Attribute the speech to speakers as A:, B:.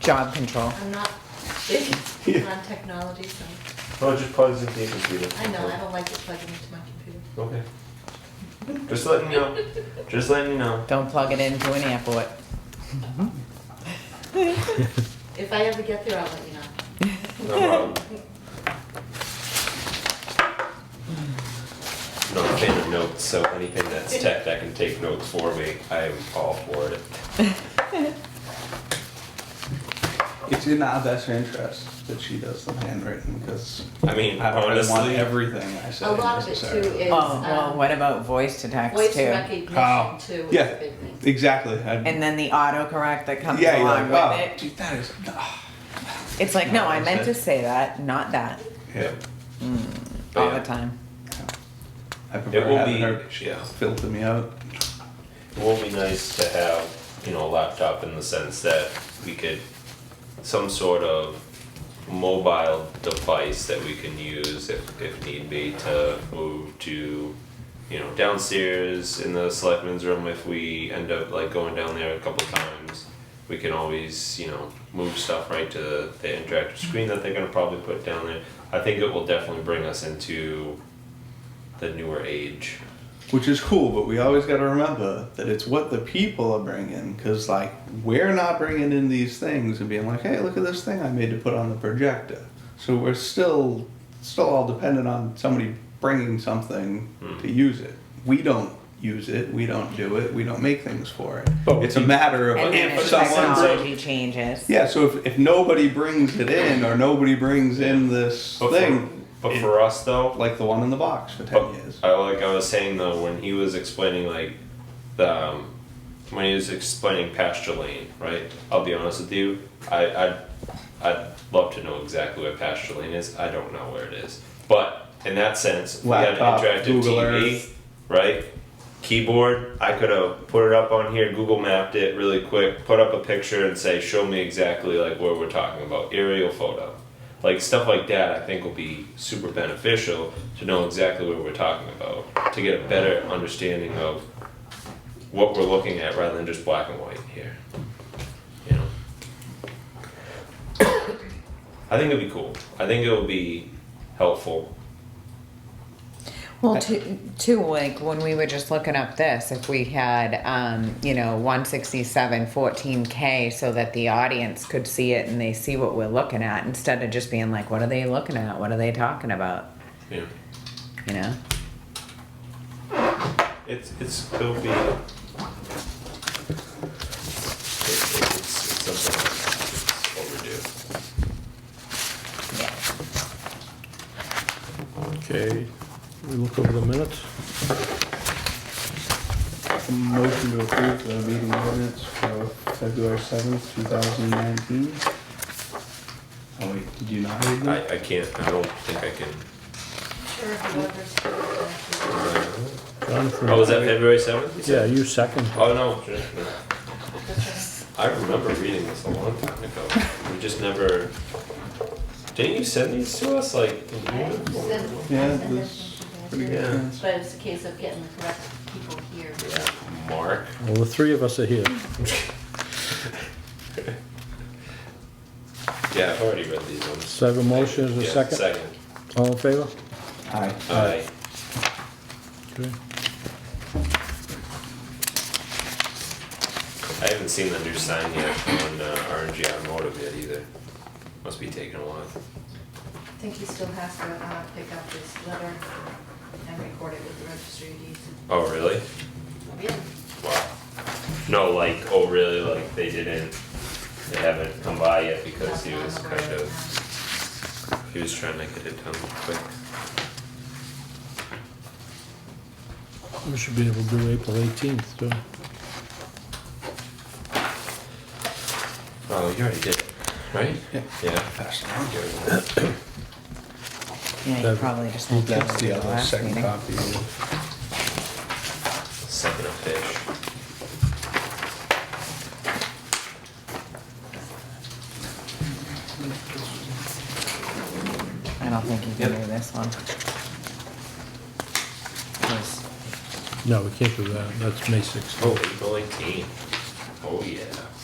A: job control.
B: I'm not big on technology, so
C: Oh, just plugs into your computer.
B: I know, I don't like it plugging into my computer.
C: Okay. Just letting you know. Just letting you know.
A: Don't plug it into an airport.
B: If I ever get there, I'll let you know.
C: No problem. Not a fan of notes, so anything that's tech that can take notes for me, I'm all for it.
D: It's in our best interest that she does the handwritten because
C: I mean,
D: I don't really want
C: honestly,
D: everything I say.
B: A lot of it too
D: necessarily.
B: is,
A: Oh, well,
B: um,
A: what about voice to text
B: voice
A: too?
D: Oh,
B: recognition too is
D: yeah.
B: a big thing.
D: Exactly. I'd-
A: And then the autocorrect that comes
D: yeah, you're
A: along
D: like, wow,
A: with
D: dude, that is. ah."
A: it. It's like, no, I meant to
D: Understood.
A: say that, not that,
D: Yeah. Oh,
C: But
A: all
C: yeah,
A: the time.
D: I prefer
C: will
D: having
C: be-
D: her
C: yeah.
D: filter me out.
C: It will be nice to have, you know, a laptop in the sense that we could, some sort of mobile device that we can use if, if need be to move to, you know, downstairs in the selectmen's room if we end up like going down there a couple times. We can always, you know, move stuff right to the, the interactive screen that they're gonna probably put down there. I think it will definitely bring us into the newer age.
D: Which is cool, but we always got to remember that it's what the people are bringing. Because, like, we're not bringing in these things and being like, hey, look at this thing I made to put on the projector. So we're still, still all dependent on somebody bringing something
C: Hmm.
D: to use it. We don't use it. We don't do it. We don't make things for it.
C: But
D: it's a matter of
A: And then oh.
D: if
A: as
D: someone brings-
A: technology changes.
D: Yeah, so if, if nobody brings it in or nobody brings in this
C: But for,
D: thing,
C: but for us though,
D: like the one in the box for 10
C: But
D: years.
C: Oh, I like I was saying though when he was explaining like the um, when he was explaining pasture lane, right? I'll be honest with you, I I'd, I'd love to know exactly where pasture lane is. I don't know where it is, but in that sense, we had an
D: Laptop,
C: interactive
D: Google
C: TV,
D: Earth.
C: right? Keyboard. I could have put it up on here, Google mapped it really quick, put up a picture, and say, "Show me exactly like where we're talking about." Aerial photo like stuff like that i think will be super beneficial to know exactly what we're talking about to get a better understanding of what we're looking at rather than just black and white here you know i think it'd be cool i think it'll be helpful
A: Well, too, too, like when we were just looking up this, if we had, um, you know, 167, 14K so that the audience could see it and they see what we're looking at instead of just being like, what are they looking at? What are they talking about?
C: you know
A: You know?
C: it's it's it'll be it, it's, it's something that's overdue
A: Yeah.
E: Okay, we look over the minutes.
D: Motion to approve the meeting minutes for February seventh, two thousand nineteen. Oh wait, did you not read them?
C: I, I can't i don't think i can
B: Sure, if you want
E: Jonathan,
C: oh was that february 7th
E: Yeah, you second.
C: Oh no, just-
B: this.
C: I remember reading this a long time ago. We just never. Didn't you send these to us? Like,
D: Yeah, this- Pretty good
C: Yeah.
D: chance.
B: But it's a case of getting the correct people here.
C: yeah, Mark.
E: Well, the three of us are here.
C: Yeah, I've already read these ones.
E: So I have a motion, is there
C: Yeah,
E: a second?
C: Second.
E: All in favor?
D: Aye.
C: Aye.
E: Okay.
C: I haven't seen the new sign yet on uh, RNG Automotive yet either. Must be taking a while.
B: I think he still has to uh, pick up this letter and record it with the registry of deeds.
C: Oh really?
B: Yeah.
C: Wow. No, like oh really? Like they didn't. They haven't come by yet because he was kind of he was trying to get it done quick.
E: We should be able to do April eighteenth, too.
C: Oh, you already did, it, right?
D: Yeah.
C: Yeah.
A: Yeah, you
E: That-
A: probably just need to.
D: That's the
A: do
D: other
A: last
D: second
A: meeting.
D: copy.
C: Sucking a fish.
A: I don't think you can
C: Yep.
A: do this one. 'Cause
E: No, we can't do that, that's May sixteenth.
C: Oh, April 18. Oh, yeah.